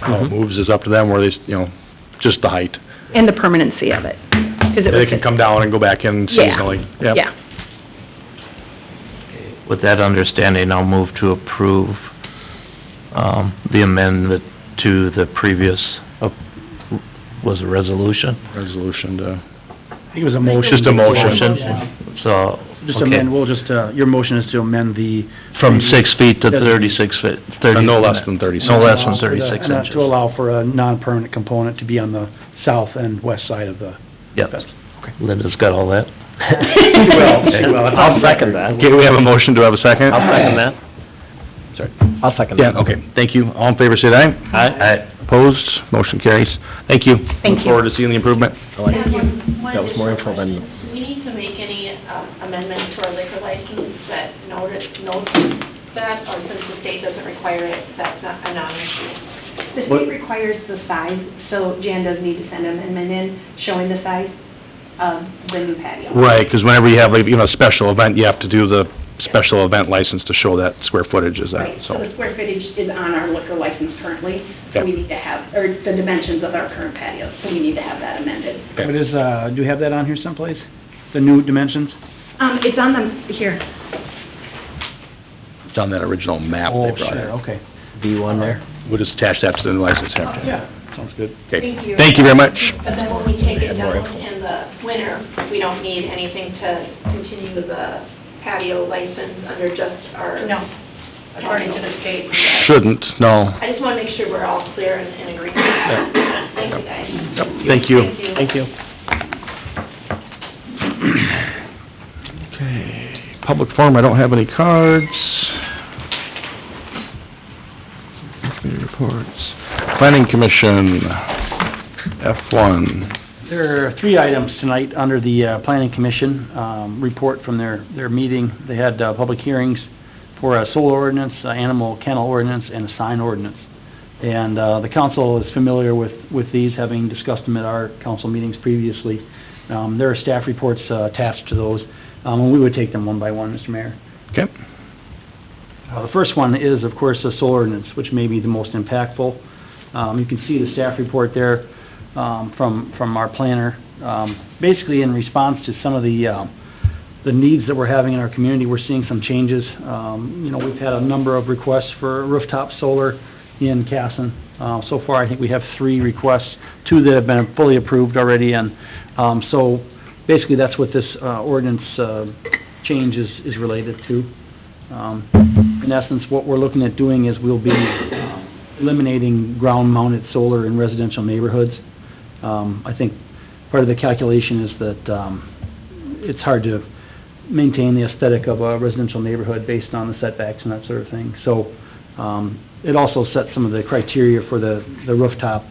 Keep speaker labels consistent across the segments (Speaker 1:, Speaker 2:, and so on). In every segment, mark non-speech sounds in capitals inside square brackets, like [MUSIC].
Speaker 1: how it
Speaker 2: Mhm.
Speaker 1: moves is up to them where they, s- you know, just the height.
Speaker 3: and the permanency of it. 'cause it
Speaker 1: They
Speaker 3: was
Speaker 1: can
Speaker 3: just-
Speaker 1: come down and go back in seasonally.
Speaker 3: Yeah,
Speaker 1: Yep.
Speaker 3: yeah.
Speaker 2: With that understanding, I'll move to approve um, the amendment to the previous, uh, was a resolution?
Speaker 1: Resolution to,
Speaker 4: I think it was a motion.
Speaker 1: Just a motion.
Speaker 4: Yeah.
Speaker 2: So,
Speaker 4: Just
Speaker 2: okay,
Speaker 4: amend, we'll just, uh, your motion is to amend the.
Speaker 2: from
Speaker 4: [LAUGHS]
Speaker 2: six feet to thirty-six feet, thirty...
Speaker 1: and no less than thirty.
Speaker 2: No less than thirty-six
Speaker 4: And, uh, To
Speaker 2: inches.
Speaker 4: allow for a non-permanent component to be on the south and west side of the.
Speaker 2: Yep, Linda's got all that?
Speaker 4: [LAUGHS] I'll second that.
Speaker 1: Okay, we have a motion, do I have a second?
Speaker 2: that.
Speaker 1: Sorry.
Speaker 2: I'll second
Speaker 1: Yeah, okay, thank you. All in favor, say aye.
Speaker 2: Aye.
Speaker 1: Opposed, motion carries. Thank you.
Speaker 3: Thank
Speaker 1: Look
Speaker 3: you.
Speaker 1: forward to seeing the improvement.
Speaker 5: That
Speaker 6: was more info than-
Speaker 5: Do we need to make any um, amendments to our liquor license that notice, notes that, or since the state doesn't require it, that's not a non-issue?
Speaker 6: The
Speaker 4: What-
Speaker 6: state requires the size, so Jan does need to send an amendment in showing the size of the new patio.
Speaker 1: Right, because whenever you have, like, you know, a special event, you have to do the special event license to show that square footage is that,
Speaker 6: Right,
Speaker 1: so.
Speaker 6: so the square footage is on our liquor license currently, so we
Speaker 1: Yep.
Speaker 6: need to have, or the dimensions of our current patio, so we need to have that amended.
Speaker 4: What is, uh, do you have that on here someplace? The new dimensions?
Speaker 6: Um, it's on the, here,
Speaker 1: It's on that original map
Speaker 4: Oh,
Speaker 1: they brought
Speaker 4: sure,
Speaker 1: in.
Speaker 4: okay.
Speaker 1: We'll just attach that to the license after.
Speaker 4: Yeah, sounds good.
Speaker 1: Okay,
Speaker 5: Thank you.
Speaker 1: thank you very much.
Speaker 5: But then when we take it down in the winter, we don't need anything to continue the patio license under just our.
Speaker 6: no, according to the state.
Speaker 1: Shouldn't, no.
Speaker 5: I just want to make sure we're all clear and in agreement. Thank you, guys.
Speaker 1: Yep, Thank you.
Speaker 5: Thank you. Thank you.
Speaker 1: Okay, public forum, I don't have any cards. Committee reports. Planning Commission, F one.
Speaker 4: There are three items tonight under the uh, Planning Commission um, report from their, their meeting. They had uh, public hearings for a solar ordinance, uh, animal kennel ordinance, and a sign ordinance. And uh, the council is familiar with, with these, having discussed them at our council meetings previously. Um, There are staff reports uh, attached to those, um, and we would take them one by one, Mr. Mayor.
Speaker 1: Okay.
Speaker 4: Uh, The first one is, of course, the solar ordinance, which may be the most impactful. Um, You can see the staff report there um, from, from our planner. Um, Basically, in response to some of the, um, the needs that we're having in our community, we're seeing some changes. Um, You know, we've had a number of requests for rooftop solar in Casson. Uh, So far, I think we have three requests, two that have been fully approved already, and um, so basically, that's what this uh, ordinance uh, change is, is related to. Um, In essence, what we're looking at doing is we'll be um, eliminating ground-mounted solar in residential neighborhoods. Um, I think part of the calculation is that um, it's hard to maintain the aesthetic of a residential neighborhood based on the setbacks and that sort of thing. So um, it also sets some of the criteria for the the rooftop.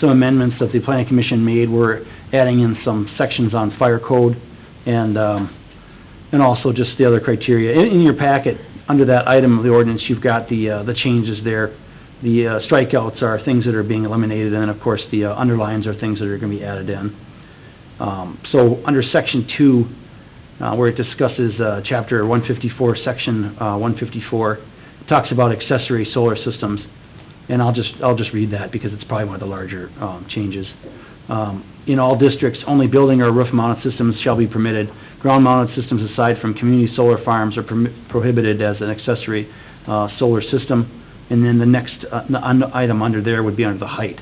Speaker 4: Some amendments that the planning commission made were adding in some sections on fire code and um, and also just the other criteria. In, in your packet, under that item of the ordinance, you've got the, uh, the changes there. The uh, strikeouts are things that are being eliminated, and then, of course, the uh, underlines are things that are gonna be added in. Um, so, under section two, uh, where it discusses, uh, chapter one fifty-four, section, uh, one fifty-four, talks about accessory solar systems, and I'll just, I'll just read that because it's probably one of the larger, um, changes. Um, In all districts, only building or roof-mounted systems shall be permitted. Ground-mounted systems aside from community solar farms are permi- prohibited as an accessory uh, solar system. And then the next uh, n- un- item under there would be under the height.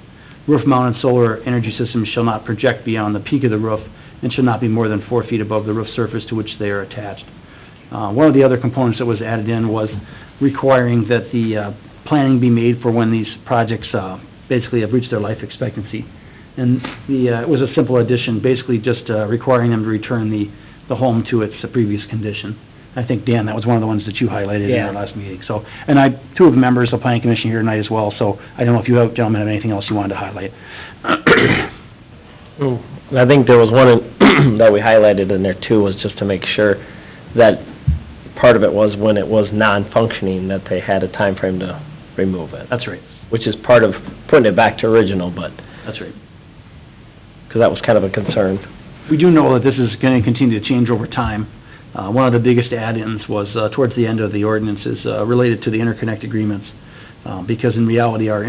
Speaker 4: Roof-mounted solar energy systems shall not project beyond the peak of the roof and shall not be more than four feet above the roof surface to which they are attached. Uh, One of the other components that was added in was requiring that the uh, planning be made for when these projects uh, basically have reached their life expectancy. And the, uh, it was a simple addition, basically just uh, requiring them to return the, the home to its previous condition. I think, Dan, that was one of the ones that you highlighted in our last meeting, so, and I, two of the members of the planning commission here tonight as well, so I don't know if you have, gentlemen, have anything else you wanted to highlight. [COUGHS]
Speaker 7: I think there was one in- [CLEARS THROAT] that we highlighted in there too, was just to make sure that part of it was when it was non-functioning, that they had a time frame to remove it,
Speaker 4: That's right,
Speaker 7: which is part of putting it back to original, but,
Speaker 4: that's right.
Speaker 7: because that was kind of a concern.
Speaker 4: We do know that this is going to continue to change over time. Uh, One of the biggest add-ins was uh, towards the end of the ordinances uh, related to the interconnect agreements, uh, because in reality, our